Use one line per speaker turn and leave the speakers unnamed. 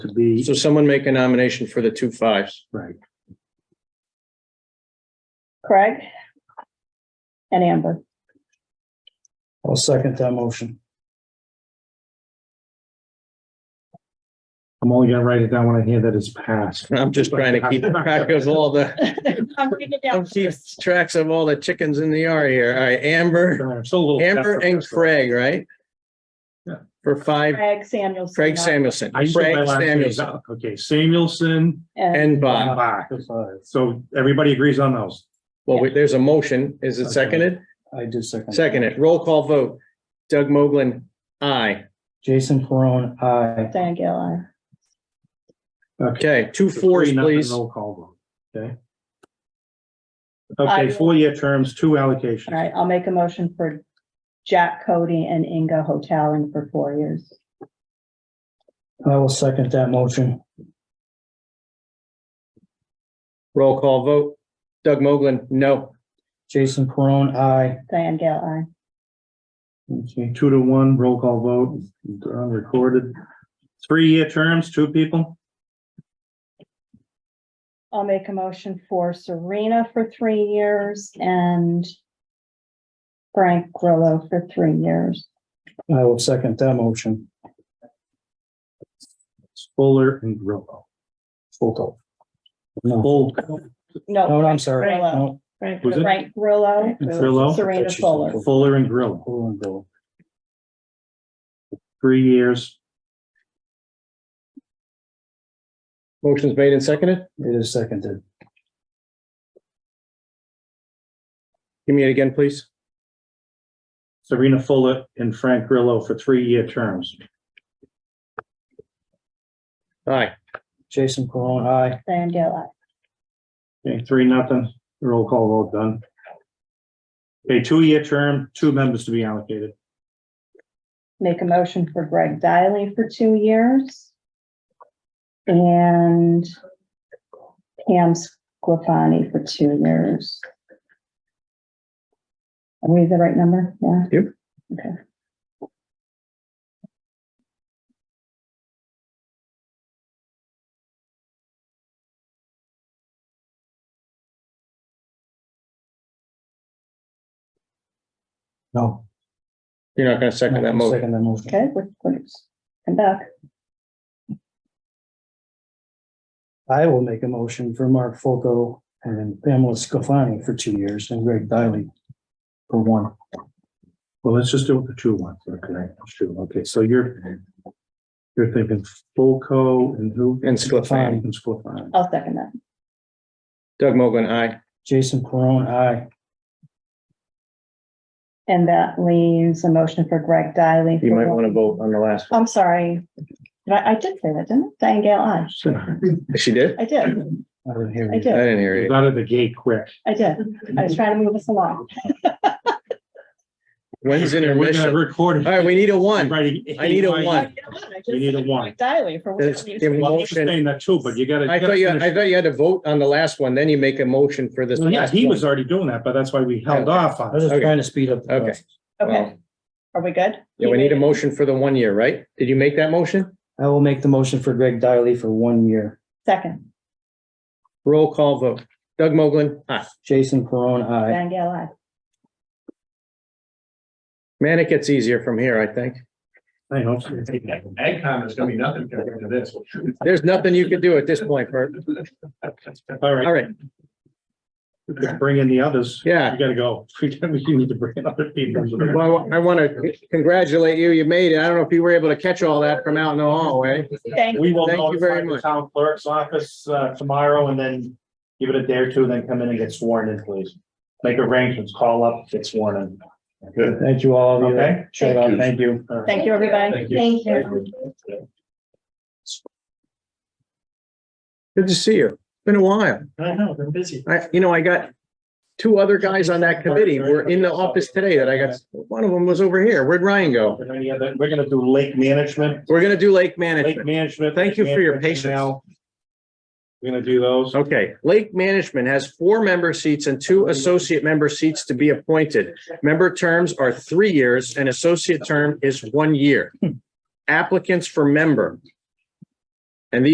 would be,
So someone make a nomination for the two fives.
right,
Craig? And Amber.
I'll second that motion.
I'm only gonna write it down when I hear that it's passed.
I'm just trying to keep track of all the,
I'm writing it down
I'm keeping tracks of all the chickens in the yard here. All right, Amber,
I'm still a little-
Amber and Craig, right?
Yeah.
For five,
Craig Samuelson.
Craig Samuelson,
I used to put my
Craig
last name
Samuelson
down. Okay, Samuelson
And
and Bob.
Bach. So everybody agrees on those.
Well, we- there's a motion. Is it seconded?
I do second.
Seconded. Roll call vote. Doug Moglen, aye.
Jason Perone, aye.
Diane Gale,
Okay, two fours,
Three, nothing,
please.
Roll call vote, okay?
I-
Okay, four-year terms, two
aye.
allocations.
All right, I'll make a motion for Jack Cody and Inga Hotelling for four years.
I will second that motion.
Roll call vote. Doug Moglen, no.
Jason Perone, aye.
Diane Gale, aye.
Okay, two to one, roll call vote, they're unrecorded. Three-year terms, two people,
I'll make a motion for Serena for three years and Frank Grillo for three years.
I will second that motion.
Fuller and Grillo.
Full call. No,
Full,
no,
No,
I'm sorry.
Right.
No.
Frank
Who's it?
Frank Grillo,
Grillo?
Serena Fuller.
Fuller and Grillo,
Perone, Bill.
three years.
Motion's made and seconded.
It is seconded.
Give me it again, please.
Serena Fuller and Frank Grillo for three-year terms.
Aye.
Jason Perone, aye.
Diane Gale,
Okay, three, nothing, roll call vote done. Okay, two-year term, two members to be allocated.
make a motion for Greg Diley for two years. And Pam Squafani for two years. Are we the right number? Yeah.
Yep.
Okay.
No.
You're not gonna second that motion.
Second that motion.
Okay, we're- we're- come back.
I will make a motion for Mark Foco and Pamela Scofani for two years and Greg Diley for one.
Well, let's just do it for two ones, okay, two, okay, so you're you're thinking Fulco and who?
And Sclafani.
And Sclafani.
I'll second that.
Doug Moglen, aye.
Jason Perone, aye.
And that leaves a motion for Greg Diley.
You
for
might
one-
wanna vote on the last.
I'm sorry. Did I, I did say that, didn't I? Diane Gale, aye.
one. She did?
I did,
I didn't hear
I
you.
I
did,
didn't hear
It was
you.
Out of the gate quick.
I did. I was trying to move us along.
When's
We're gonna
intermission?
record.
All right, we need a one. I need a one.
You need a one.
Diley for.
There's- give one.
one.
Well, he's saying that too, but you gotta.
I thought you, I
Well,
thought you had to vote on the last one, then you make a motion for this.
Yeah,
last
he
one.
was already doing that, but that's why we held off
I
on
was
it.
just trying to speed up. the
Okay.
process.
Okay, are we good?
Yeah, we need a motion for the one year, right? Did you make that motion?
I will make the motion for Greg Diley for one year.
Second,
Roll call vote. Doug Moglen, aye.
Jason Perone, aye.
Diane Gale, aye.
Man, it gets easier from here, I think.
I know.
AgCom is gonna be nothing compared to this.
There's nothing you can do at this point, Bert.
All right,
All right,
let's bring in the others.
yeah.
You gotta go. We need to bring in other people.
Well, I want to congratulate you. You made it. I don't know if you were able to catch all that from out in the hallway.
Thank
We will
Thank you very
notify the
much.
town clerk's office uh, tomorrow and then give it a day or two, then come in and get sworn in, please. Make arrangements, call up, get sworn in.
Good.
Thank you all of you.
Okay.
Shut up. Thank you.
All right.
Thank you, everybody.
Thank you. Thank
Good to see you. Been a while.
I know, they're busy.
I, you know, I got two other guys on that committee were in the office today that I got, one of them was over here. Where'd Ryan
Are
go?
there any other- We're gonna do lake management,
We're going to do lake
lake
management.
management.
Thank you for your patience.
Now, We're gonna do those.
Okay, Lake Management has four member seats and two associate member seats to be appointed. Member terms are three years and associate term is one year. Applicants for member,